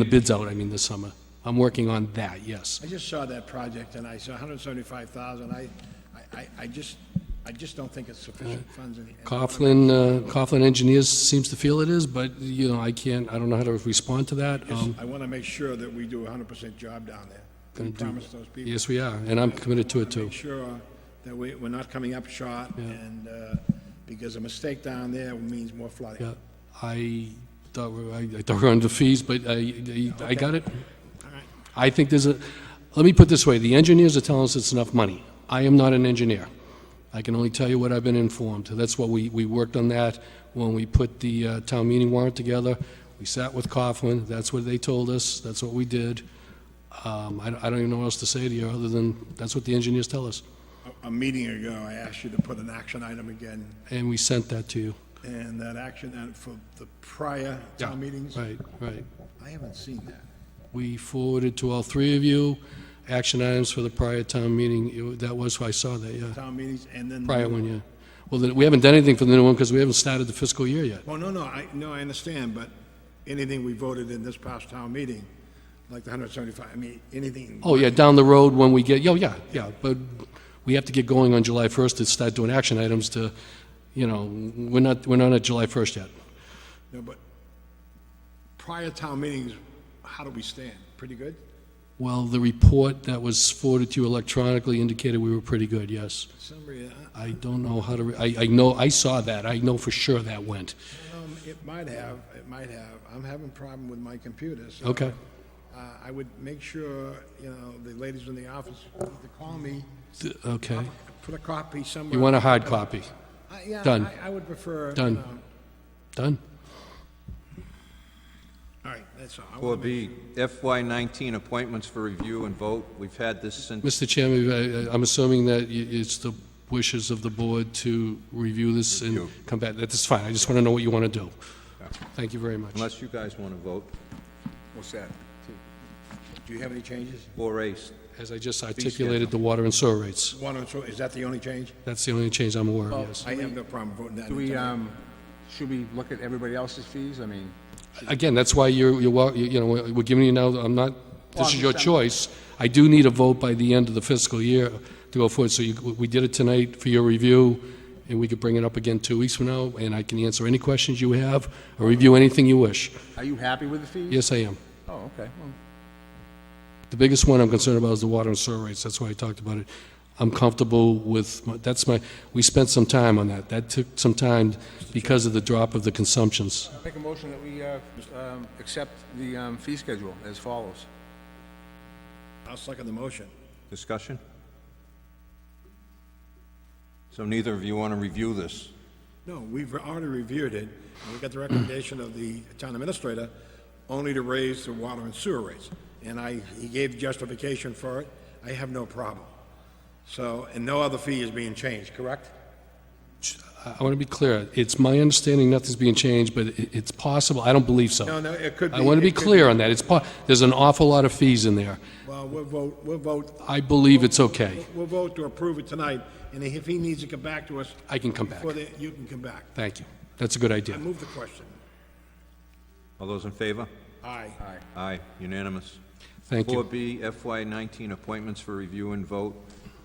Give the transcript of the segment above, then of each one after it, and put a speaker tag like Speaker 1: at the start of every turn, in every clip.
Speaker 1: The bid's out, I mean, this summer. I'm working on that, yes.
Speaker 2: I just saw that project and I saw 175,000. I, I- I, I just, I just don't think it's sufficient funds in the. end.
Speaker 1: Coughlin, uh, Coughlin Engineers seems to feel it is, but, you know, I can't, I don't know how to respond to that. Um,
Speaker 2: I want to make sure that we do a 100% job down there. We
Speaker 1: Gonna do-
Speaker 2: promise those people.
Speaker 1: Yes, we are, and I'm committed to it, too.
Speaker 2: Make sure that we, we're not coming up short and, uh, because a mistake down there means more flooding.
Speaker 1: Yeah, I thought, we- I I thought we were under fees, but I, I- I got it. I think there's a, let me put it this way, the engineers are telling us it's enough money. I am not an engineer. I can only tell you what I've been informed. That's what we, we worked on that when we put the uh, town meeting warrant together. We sat with Coughlin, that's what they told us, that's what we did. Um, I don't I don't even know what else to say to you, other than, that's what the engineers tell us.
Speaker 2: A- A meeting ago, I asked you to put an action item again,
Speaker 1: And we sent that to you.
Speaker 2: and that action, item for the prior
Speaker 1: Yeah,
Speaker 2: town meetings,
Speaker 1: Right, right.
Speaker 2: I haven't seen that.
Speaker 1: We forwarded to all three of you action items for the prior town meeting. It wa- That was, I saw that, yeah.
Speaker 2: Town meetings, and then.
Speaker 1: Prior one, yeah. Well, then, we haven't done anything for the new one because we haven't started the fiscal year yet.
Speaker 2: Well, no, no, I, no, I understand, but anything we voted in this past town meeting, like the 175, I mean, anything.
Speaker 1: Oh, yeah, down the road when we get, oh, yeah, yeah. But we have to get going on July 1st to start doing action items to, you know, we're not, we're not at July 1st yet.
Speaker 2: No, but prior town meetings, how do we stand? Pretty good?
Speaker 1: Well, the report that was forwarded to you electronically indicated we were pretty good, yes.
Speaker 2: Somebody, uh, I-
Speaker 1: I don't know how to, re- I, I know, I saw that. I know for sure that went.
Speaker 2: um, it might have, it might have. I'm having a problem with my computer, so.
Speaker 1: Okay.
Speaker 2: Uh, I would make sure, you know, the ladies in the office, either call me,
Speaker 1: Th- Okay.
Speaker 2: put a copy somewhere.
Speaker 1: You want a hard copy?
Speaker 2: I- Yeah,
Speaker 1: done.
Speaker 2: I, I would prefer. you
Speaker 1: Done.
Speaker 2: know,
Speaker 1: Done.
Speaker 2: All right, that's all. I wanna
Speaker 3: Four
Speaker 2: make-
Speaker 3: B, FY nineteen appointments for review and vote. We've had this since,
Speaker 1: Mr. Chairman, I- I- I'm assuming that y- it's the wishes of the board to review this and
Speaker 3: Review.
Speaker 1: come back. That's fine. I just want to know what you want to do. Thank you very much.
Speaker 3: unless you guys want to vote.
Speaker 2: What's that? Do you have any changes?
Speaker 3: Four A,
Speaker 1: As I just articulated, the water and sewer rates.
Speaker 2: One or two, is that the only change?
Speaker 1: That's the only change I'm aware of, yes.
Speaker 2: I have no problem voting that.
Speaker 4: Do we, um, should we look at everybody else's fees? I mean,
Speaker 1: Again, that's why you're, you're wel- you you know, we're giving you now, I'm not,
Speaker 4: Well,
Speaker 1: this is
Speaker 4: I'm
Speaker 1: your
Speaker 4: just-
Speaker 1: choice. I do need a vote by the end of the fiscal year to go forward, so you, we did it tonight for your review, and we could bring it up again two weeks from now, and I can answer any questions you have, or review anything you wish.
Speaker 4: are you happy with the fees?
Speaker 1: Yes, I am.
Speaker 4: Oh, okay, well,
Speaker 1: The biggest one I'm concerned about is the water and sewer rates, that's why I talked about it. I'm comfortable with, my- that's my, we spent some time on that. That took some time because of the drop of the consumptions.
Speaker 4: make a motion that we, uh, um, accept the, um, fee schedule as follows.
Speaker 1: um,
Speaker 2: I'll second the motion.
Speaker 3: discussion? So neither of you want to review this?
Speaker 2: No, we've already reviewed it, and we got the recommendation of the town administrator only to raise the water and sewer rates. And I, he gave justification for it. I have no problem. So, and no other fee is being changed, correct?
Speaker 1: I want to be clear. It's my understanding nothing's being changed, but it- it's possible. I don't believe so.
Speaker 2: No, no, it could be.
Speaker 1: I want to be
Speaker 2: it could-
Speaker 1: clear on that. It's, po- there's an awful lot of fees in there.
Speaker 2: Well, we'll vote, we'll vote,
Speaker 1: I believe it's okay.
Speaker 2: we'll vote to approve it tonight, and if he needs to come back to us,
Speaker 1: I can come back.
Speaker 2: before the, you can come back.
Speaker 1: Thank you. That's a good
Speaker 2: I
Speaker 1: idea.
Speaker 2: move the question.
Speaker 3: All those in favor?
Speaker 2: Aye.
Speaker 3: Aye, unanimous.
Speaker 1: Thank
Speaker 3: Four
Speaker 1: you.
Speaker 3: B, FY nineteen appointments for review and vote.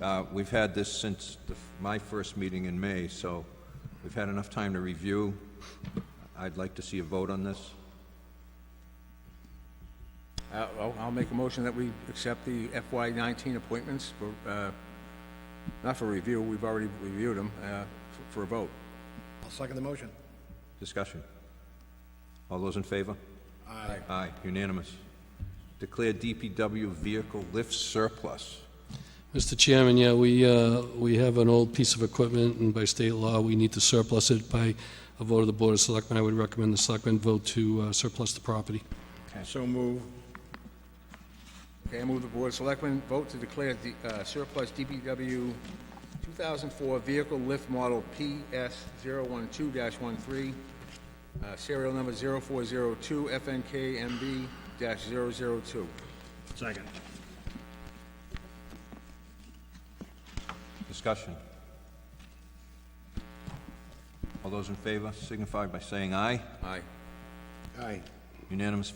Speaker 3: Uh, we've had this since the, my first meeting in May, so we've had enough time to review. I'd like to see a vote on this.
Speaker 4: Uh, well, I'll make a motion that we accept the FY nineteen appointments for, uh, not for review, we've already reviewed them, uh, f- for a vote.
Speaker 2: I'll second the motion.
Speaker 3: Discussion. All those in favor?
Speaker 2: Aye.
Speaker 3: Aye, unanimous. Declare DPW vehicle lift surplus.
Speaker 1: Mr. Chairman, yeah, we, uh, we have an old piece of equipment, and by state law, we need to surplus it by a vote of the Board of Selectmen. I would recommend the Selectmen vote to uh, surplus the property.
Speaker 2: So move.
Speaker 4: Okay, I move the Board of Selectmen vote to declare the uh, surplus DPW 2004 vehicle lift model PS012-13, uh, serial number 0402 FNKMB-002.
Speaker 2: Second.
Speaker 3: Discussion. All those in favor signify by saying aye.
Speaker 4: Aye.
Speaker 2: Aye.
Speaker 3: Unanimous